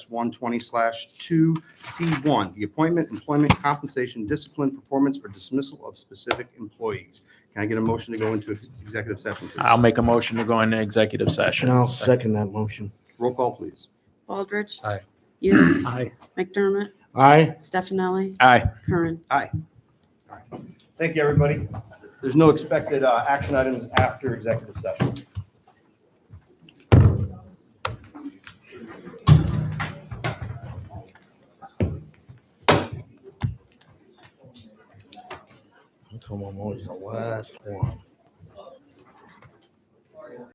120 slash 2C1, the appointment, employment, compensation, discipline, performance, or dismissal of specific employees. Can I get a motion to go into executive session, please? I'll make a motion to go into executive session. And I'll second that motion. Roll call, please. Baldridge. Aye. Yes. Aye. McDermott. Aye. Stefani. Aye. Curran. Thank you, everybody. There's no expected uh, action items after executive session. Come on, always the last one.